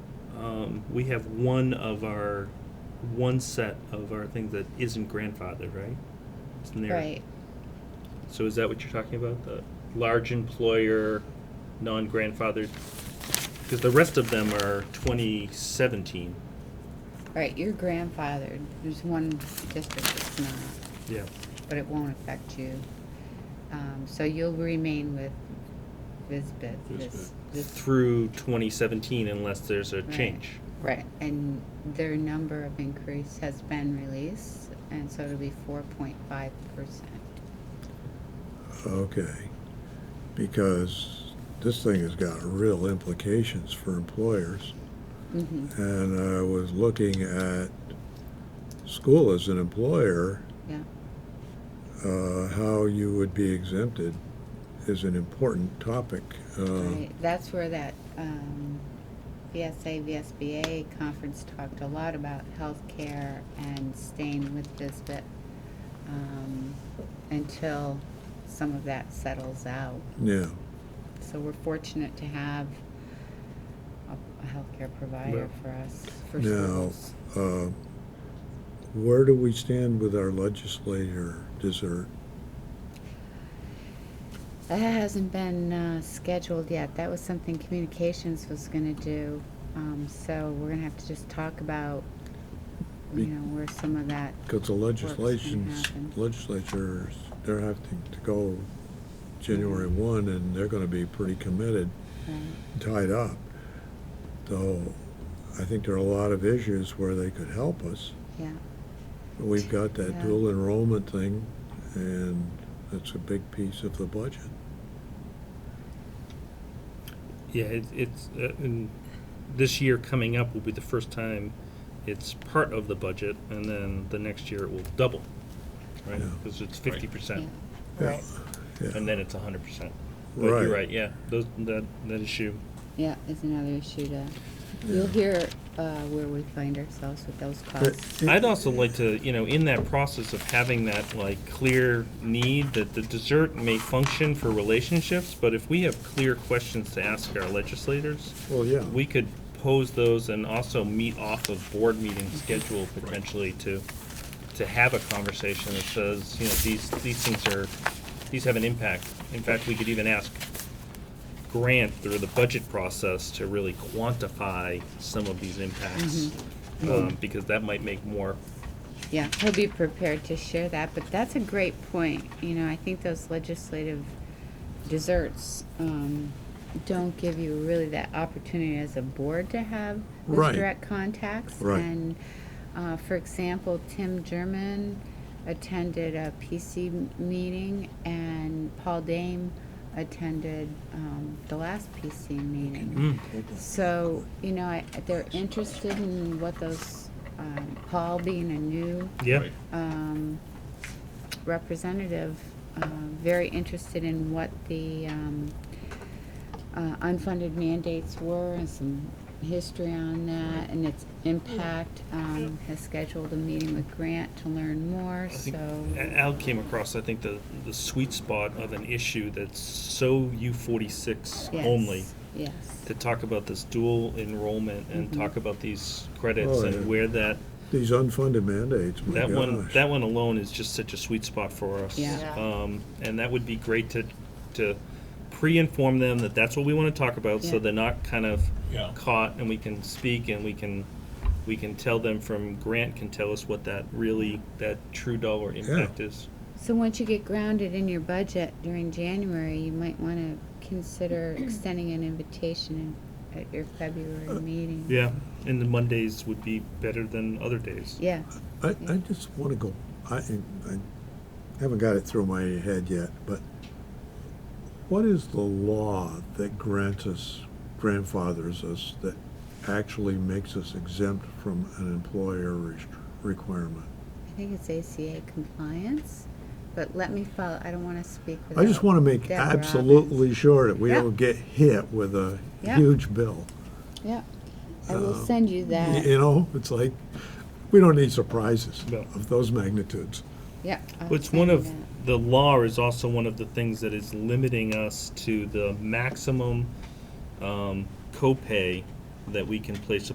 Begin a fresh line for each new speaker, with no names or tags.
um, we have one of our, one set of our things that isn't grandfathered, right? It's in there.
Right.
So is that what you're talking about? The large employer, non-grandfathered? Because the rest of them are 2017.
Right, you're grandfathered. There's one district that's not,
Yeah.
but it won't affect you. Um, so you'll remain with Visbit. This, this,
Through 2017 unless there's a
Right.
change.
right, and their number of increase has been released, and so it'll be four point five percent.
Okay, because this thing has got real implications for employers.
Mm-hmm,
And I was looking at school as an employer,
yeah,
uh, how you would be exempted is an important topic. Uh,
right. That's where that, um, VSA, VSBA conference talked a lot about healthcare and staying with Visbit, um, until some of that settles out.
Yeah,
So we're fortunate to have a- a healthcare provider
Yeah.
for us, for
Now-
schools.
uh, where do we stand with our legislator dessert?
That hasn't been uh, scheduled yet. That was something communications was going to do. Um, So we're going to have to just talk about, you
Be-
know, where some of that,
Because the legislations,
happen.
legislatures, they're having to go January one, and they're gonna be pretty committed,
right,
tied up. So I think there are a lot of issues where they could help us.
yeah.
We've got that
Yeah.
dual enrollment thing, and that's a big piece of the budget.
Yeah, it, it's, uh, and this year coming up will be the first time it's part of the budget, and then the next year it will double, right?
Yeah.
Because it's fifty percent,
Yeah.
Right.
and
Yeah,
then it's hundred percent. But you're
Right.
right, yeah, those, that, that issue,
Yeah, is another issue to,
Yeah.
you'll hear uh, where we find ourselves with those
But
costs.
it-
I'd also like to, you know, in that process of having that like clear need that the dessert may function for relationships, but if we have clear questions to ask our legislators,
Well, yeah.
we could pose those and also meet off of board meeting schedule potentially to, to have a conversation that says, you know, these, these things are, these have an impact. In fact, we could even ask Grant through the budget process to really quantify some of these impacts. Um, because that might make more,
Yeah, he'll be prepared to share that, but that's a great point. You know, I think those legislative desserts um, don't give you really that opportunity as a board to have those
Right.
direct contacts.
Right.
And uh, for example, Tim German attended a PC m- meeting, and Paul Dame attended um, the last PC meeting.
Mm.
So, you know, I, they're interested in what those, um, Paul being a new,
yeah,
um, representative, uh, very interested in what the, um, uh, unfunded mandates were and some history on that and its impact, um, has scheduled a meeting with Grant to learn more,
I think
so.
A- Al came across, I think, the, the sweet spot of an issue that's so U forty-six
Yes,
only.
Yes.
To talk about this dual enrollment and
Mhm.
talk about these credits
Oh,
and
yeah.
where that,
These unfunded mandates, my
that one,
gosh.
that one alone is just such a sweet spot for us.
Yeah.
Yeah.
Um, and that would be great to, to pre-inform them that that's what we wanna talk about, so
Yeah.
they're not kind of
Yeah.
caught and we can speak and we can, we can tell them from, Grant can tell us what that really, that true dollar impact is.
So once you get grounded in your budget during January, you might want to consider extending an invitation in- at your February meeting.
Yeah, and the Mondays would be better than other days.
Yeah,
I, I just want to go, I, I haven't got it through my head yet, but what is the law that grants us, grandfathers us, that actually makes us exempt from an employer rest- requirement?
I think it's ACA compliance, but let me follow, I don't want to speak without.
I just want to make
Deborah Robbins.
absolutely sure that we
Yeah.
don't get hit with a
Yeah.
huge bill.
Yeah, I will send you that,
You know, it's like, we don't need surprises
No.
of those magnitudes.
yeah. I'll
Well, It's
send
one
you
of,
that.
the law is also one of the things that is limiting us to the maximum um, copay that we can place